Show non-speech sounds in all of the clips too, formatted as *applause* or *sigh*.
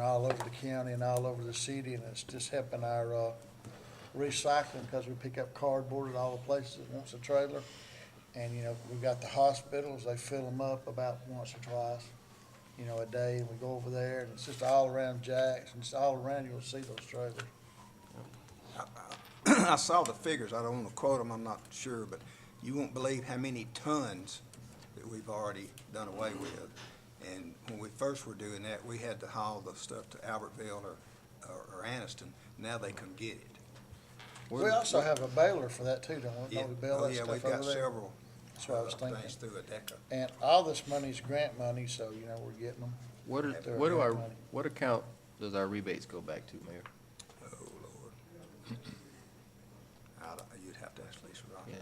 all over the county and all over the city, and it's just helping our, uh, recycling, because we pick up cardboard at all the places that wants a trailer. And, you know, we've got the hospitals, they fill them up about once or twice, you know, a day, and we go over there, and it's just all around Jack's, and it's all around, you'll see those trailers. *clears throat* I saw the figures, I don't want to quote them, I'm not sure, but you won't believe how many tons that we've already done away with. And when we first were doing that, we had to haul the stuff to Albertville or, or or Anniston, now they come get it. We also have a baler for that too, don't we? Yeah. Don't we bail Oh, that yeah, stuff we've over got there? several That's what I was uh, thinking. Things through a DECA. And all this money's grant money, so, you know, we're getting them. What are, They're what do our, money. what account does our rebates go back to, Mayor? Oh, Lord. *clears throat* I don't, you'd have to ask Lisa Rock. Yeah.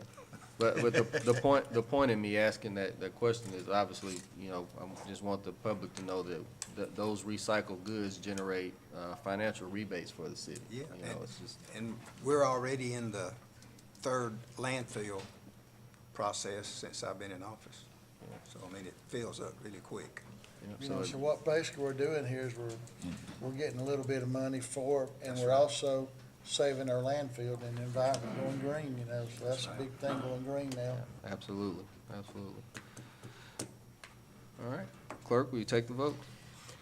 But, but the, the point, the point in me asking that, that question is obviously, you know, I just want the public to know that, that those recycled goods generate, uh, financial rebates for the city. Yeah, You know, it's just, and we're already in the third landfill process since I've been in office. So, I mean, it fills up really quick. You you know, know, so, so it- what basically we're doing here is we're, we're getting a little bit of money for, it, and we're also saving our landfill and the environment going green, you know, so that's a big thing going green now. absolutely, absolutely. All right, clerk, will you take the vote?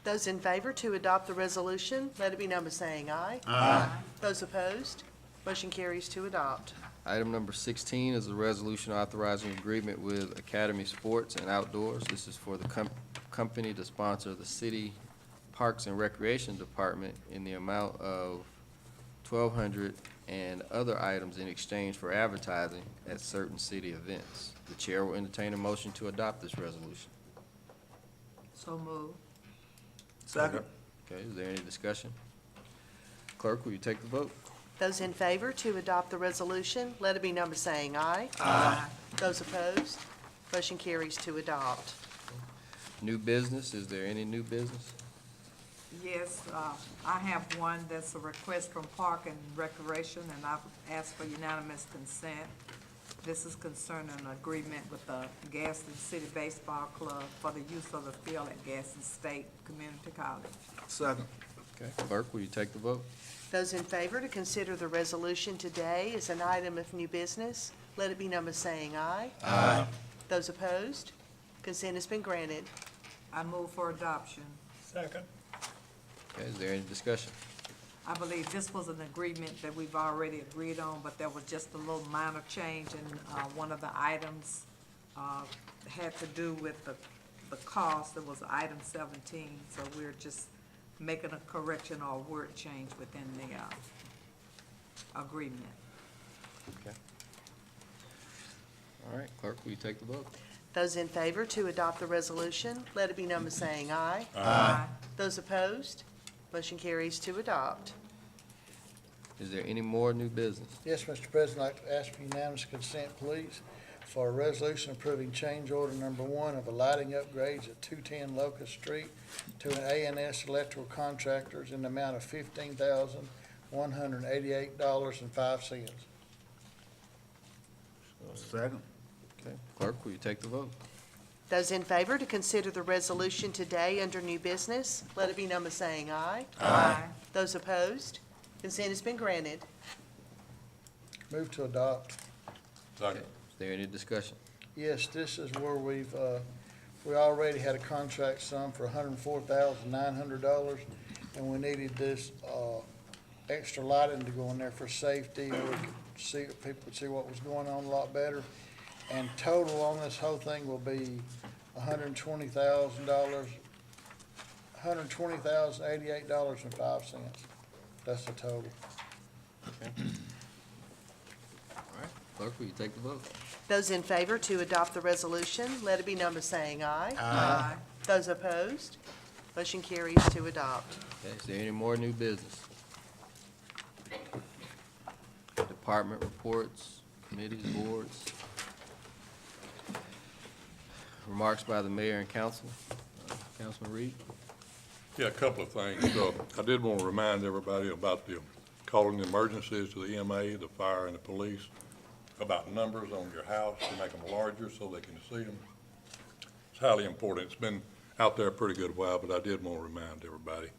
Those in favor to adopt the resolution, let it be number saying aye. Aye. Those opposed, motion carries to adopt. Item number sixteen is a resolution authorizing agreement with Academy Sports and Outdoors. This is for the com- company to sponsor the city Parks and Recreation Department in the amount of twelve hundred and other items in exchange for advertising at certain city events. The chair will entertain a motion to adopt this resolution. So move. Second. Okay, is there any discussion? Clerk, will you take the vote? Those in favor to adopt the resolution, let it be number saying aye. Aye. Those opposed, motion carries to adopt. New business, is there any new business? Yes, uh, I have one that's a request from Park and Recreation, and I've asked for unanimous consent. This is concerning an agreement with the Gaston City Baseball Club for the use of the field at Gaston State Community College. Second. Okay, clerk, will you take the vote? Those in favor to consider the resolution today as an item of new business, let it be number saying aye. Aye. Those opposed, consent has been granted. I move for adoption. Okay, is there any discussion? I believe this was an agreement that we've already agreed on, but there was just a little minor change in, uh, one of the items, uh, had to do with the, the cost, it was item seventeen, so we're just making a correction or word change within the, uh, agreement. All right, clerk, will you take the vote? Those in favor to adopt the resolution, let it be number saying aye. Aye. Those opposed, motion carries to adopt. Is there any more new business? Yes, Mr. President, I'd like to ask for unanimous consent, please, for a resolution approving change order number one of the lighting upgrades at two-ten Locust Street to an A and S electrical contractors in the amount of fifteen thousand, one hundred and eighty-eight dollars and five cents. Second. Okay, clerk, will you take the vote? Those in favor to consider the resolution today under new business, let it be number saying aye. Aye. Those opposed, consent has been granted. Move to adopt. Second. Is there any discussion? Yes, this is where we've, uh, we already had a contract sum for hundred and four thousand nine hundred dollars, and we needed this, uh, extra lighting to go in there for safety, where we could see, people could see what was going on a lot better. And total on this whole thing will be hundred and twenty thousand dollars, hundred and twenty thousand eighty-eight dollars and five cents. That's the total. All right, clerk, will you take the vote? Those in favor to adopt the resolution, let it be number saying aye. Aye. Those opposed, motion carries to adopt. Okay, is there any more new business? Department reports, committees, boards. Remarks by the mayor and council. Uh, Councilman Reed? Yeah, a couple of things. Uh, I did want to remind everybody about the calling the emergencies to the EMA, the fire, and the police, about numbers on your house, to make them larger so they can see them. It's highly important. It's been out there a pretty good while, but I did want to remind everybody.